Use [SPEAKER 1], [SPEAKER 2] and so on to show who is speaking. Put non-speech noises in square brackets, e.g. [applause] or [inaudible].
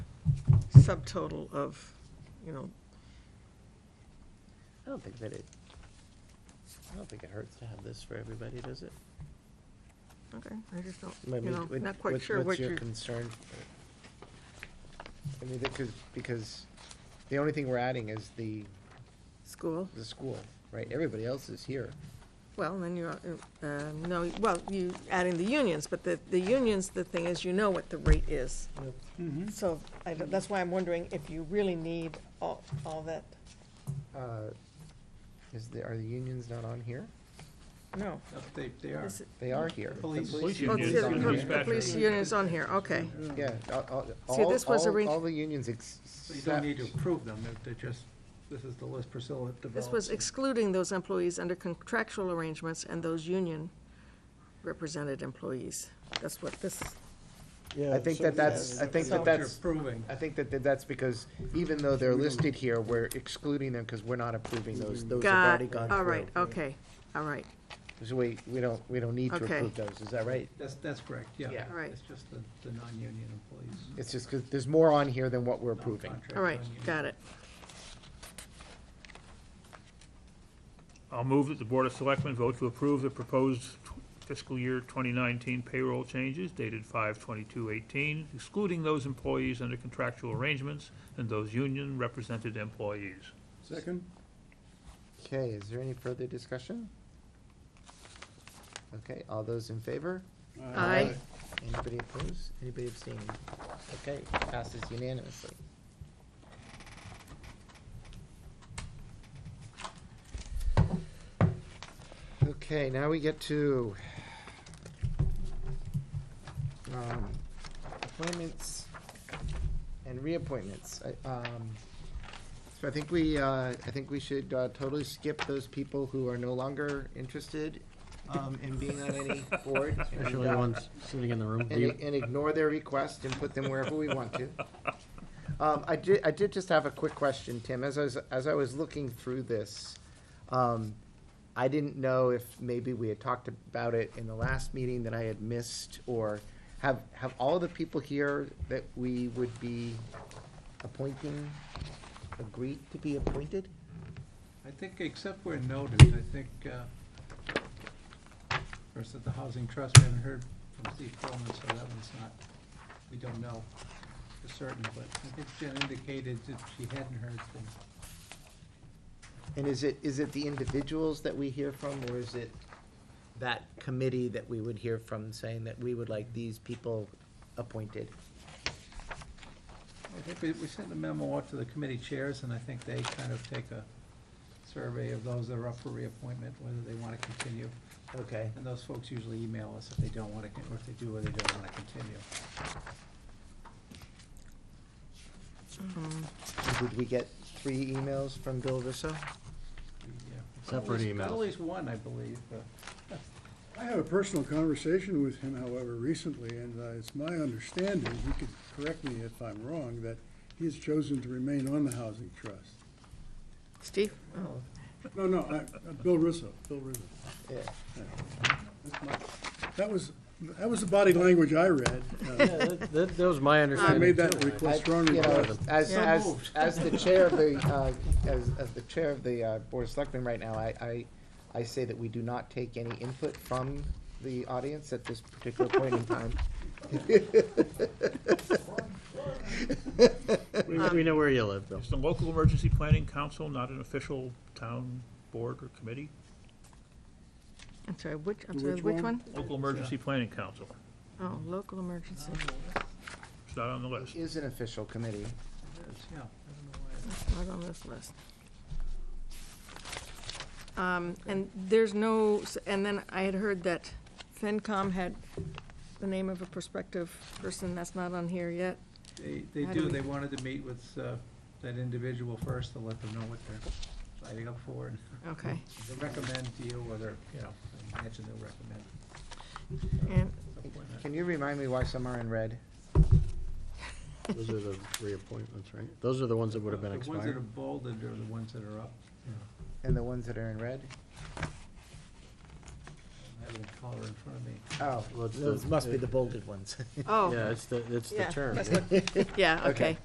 [SPEAKER 1] subtotal of, you know,
[SPEAKER 2] I don't think that it, I don't think it hurts to have this for everybody, does it?
[SPEAKER 1] okay, I just don't,
[SPEAKER 2] I mean,
[SPEAKER 1] you know,
[SPEAKER 2] what-
[SPEAKER 1] not quite
[SPEAKER 2] what-
[SPEAKER 1] sure what
[SPEAKER 2] What's
[SPEAKER 1] you're,
[SPEAKER 2] your concern? I mean, because, because the only thing we're adding is the,
[SPEAKER 1] school.
[SPEAKER 2] the school, right? Everybody else is here.
[SPEAKER 1] Well, then you're, uh, uh, no, well, you adding the unions, but the, the unions, the thing is, you know what the rate is.
[SPEAKER 3] Mm-hmm.
[SPEAKER 1] So I, don't- that's why I'm wondering if you really need all, all that,
[SPEAKER 2] Uh, Is the, are the unions not on here?
[SPEAKER 1] no.
[SPEAKER 3] They, they are.
[SPEAKER 1] Is it-
[SPEAKER 2] They are here.
[SPEAKER 3] The police-
[SPEAKER 4] police
[SPEAKER 1] Oh,
[SPEAKER 4] union
[SPEAKER 1] it's
[SPEAKER 4] is
[SPEAKER 1] the
[SPEAKER 4] on
[SPEAKER 1] po-
[SPEAKER 4] here.
[SPEAKER 1] the police union's on here, okay.
[SPEAKER 2] Yeah, all, all,
[SPEAKER 1] See, this was
[SPEAKER 2] all-
[SPEAKER 1] arranged-
[SPEAKER 2] all the unions except.
[SPEAKER 3] Mm. So you don't need to approve them, they're- they're just, this is the list Priscilla developed.
[SPEAKER 1] This was excluding those employees under contractual arrangements and those union represented employees. That's what this,
[SPEAKER 2] I think that that's, I think
[SPEAKER 3] That's
[SPEAKER 2] that
[SPEAKER 3] what you're
[SPEAKER 2] that's,
[SPEAKER 3] approving.
[SPEAKER 2] I think that that that's because even though they're listed here, we're excluding them because we're not approving those, those have
[SPEAKER 1] got,
[SPEAKER 2] already gone through.
[SPEAKER 1] all right, okay, all right,
[SPEAKER 2] So we, we don't, we don't need to
[SPEAKER 1] Okay.
[SPEAKER 2] approve those, is that right?
[SPEAKER 3] That's, that's correct, yeah.
[SPEAKER 2] Yeah.
[SPEAKER 1] All right.
[SPEAKER 3] It's just the, the non-union employees.
[SPEAKER 2] It's just because there's more on here than what we're approving.
[SPEAKER 3] Non-contract,
[SPEAKER 1] all right,
[SPEAKER 3] non-union.
[SPEAKER 1] got it.
[SPEAKER 4] I'll move that the Board of Selectmen vote to approve the proposed fiscal year 2019 payroll changes dated 5/22/18, excluding those employees under contractual arrangements and those union-represented employees.
[SPEAKER 3] Second?
[SPEAKER 2] Okay, is there any further discussion? Okay, all those in favor?
[SPEAKER 1] Aye.
[SPEAKER 2] Anybody opposed? Anybody abstaining? Okay, passes unanimously. Okay, now we get to um, appointments and reappointments. I- um, So I think we, uh, I think we should uh, totally skip those people who are no longer interested um, in being on any board. uh,
[SPEAKER 5] Especially the ones sitting in the room. Do
[SPEAKER 2] and,
[SPEAKER 5] you-
[SPEAKER 2] and ignore their request and put them wherever we want to. Um, I did, I did just have a quick question, Tim, as I was, as I was looking through this, um, I didn't know if maybe we had talked about it in the last meeting that I had missed, or have, have all the people here that we would be appointing agreed to be appointed?
[SPEAKER 3] I think, except where noted, I think, uh, first at the Housing Trust, we haven't heard from Steve Coleman, so that one's not, we don't know for certain, but I think Jen indicated that she hadn't heard from
[SPEAKER 2] And is it, is it the individuals that we hear from, or is it that committee that we would hear from saying that we would like these people appointed?
[SPEAKER 3] I think we, we sent a memo out to the committee chairs, and I think they kind of take a survey of those that are up for reappointment, whether they want to continue.
[SPEAKER 2] Okay,
[SPEAKER 3] And those folks usually email us if they don't want to, or if they do, or they don't want to continue.
[SPEAKER 2] did we get three emails from Bill Russo?
[SPEAKER 3] We, yeah, got
[SPEAKER 5] Separate
[SPEAKER 3] at least- got At
[SPEAKER 5] emails.
[SPEAKER 3] least one, I believe. uh,
[SPEAKER 6] I had a personal conversation with him, however, recently, and uh, it's my understanding, he could correct me if I'm wrong, that he has chosen to remain on the Housing Trust.
[SPEAKER 1] Steve?
[SPEAKER 6] No, no, I, uh, Bill Russo, Bill Russo.
[SPEAKER 2] Yeah.
[SPEAKER 6] That's my- That was, that was the body language I read.
[SPEAKER 5] Yeah,
[SPEAKER 6] uh,
[SPEAKER 5] That that- that was my
[SPEAKER 6] I made
[SPEAKER 5] understanding.
[SPEAKER 6] that
[SPEAKER 5] too.
[SPEAKER 2] I-
[SPEAKER 6] request strongly.
[SPEAKER 2] you know, As,
[SPEAKER 1] So
[SPEAKER 2] as,
[SPEAKER 3] moved.
[SPEAKER 2] as the chair of the, uh, as, as the chair of the uh, Board of Selectmen right now, I, I, I say that we do not take any input from the audience at this particular point in time.
[SPEAKER 5] We we know where you live, Bill.
[SPEAKER 4] Is the Local Emergency Planning Council not an official town board or committee?
[SPEAKER 1] I'm sorry, which, I'm sorry,
[SPEAKER 6] Which
[SPEAKER 1] which one?
[SPEAKER 6] one?
[SPEAKER 4] Local Emergency Planning Council,
[SPEAKER 1] Oh, local emergency.
[SPEAKER 4] it's not on the list.
[SPEAKER 2] Is an official committee.
[SPEAKER 3] Yeah, I don't know why.
[SPEAKER 1] It's not on this list. Um, and there's no, s- and then I had heard that FinCom had the name of a prospective person, that's not on here yet.
[SPEAKER 3] They, they
[SPEAKER 1] How do
[SPEAKER 3] do,
[SPEAKER 1] we-
[SPEAKER 3] they wanted to meet with uh, that individual first to let them know what they're signing up for, and [laughs]
[SPEAKER 1] Okay,
[SPEAKER 3] they recommend to you whether, you know, I imagine they'll recommend.
[SPEAKER 1] and,
[SPEAKER 3] appointment.
[SPEAKER 2] Can you remind me why some are in red?
[SPEAKER 5] Those are the reappointments, right? Those are the ones that would have been
[SPEAKER 3] The ones that are
[SPEAKER 5] expired.
[SPEAKER 3] bolded are the ones that are up, you know,
[SPEAKER 2] And the ones that are in red?
[SPEAKER 3] I have a color in front of me.
[SPEAKER 2] Oh,
[SPEAKER 5] Well, it's
[SPEAKER 2] those
[SPEAKER 5] the- uh,
[SPEAKER 2] must be the bolded ones. [laughs]
[SPEAKER 1] oh,
[SPEAKER 5] Yeah, it's the, it's the
[SPEAKER 1] Yeah,
[SPEAKER 5] term.
[SPEAKER 1] yeah, okay.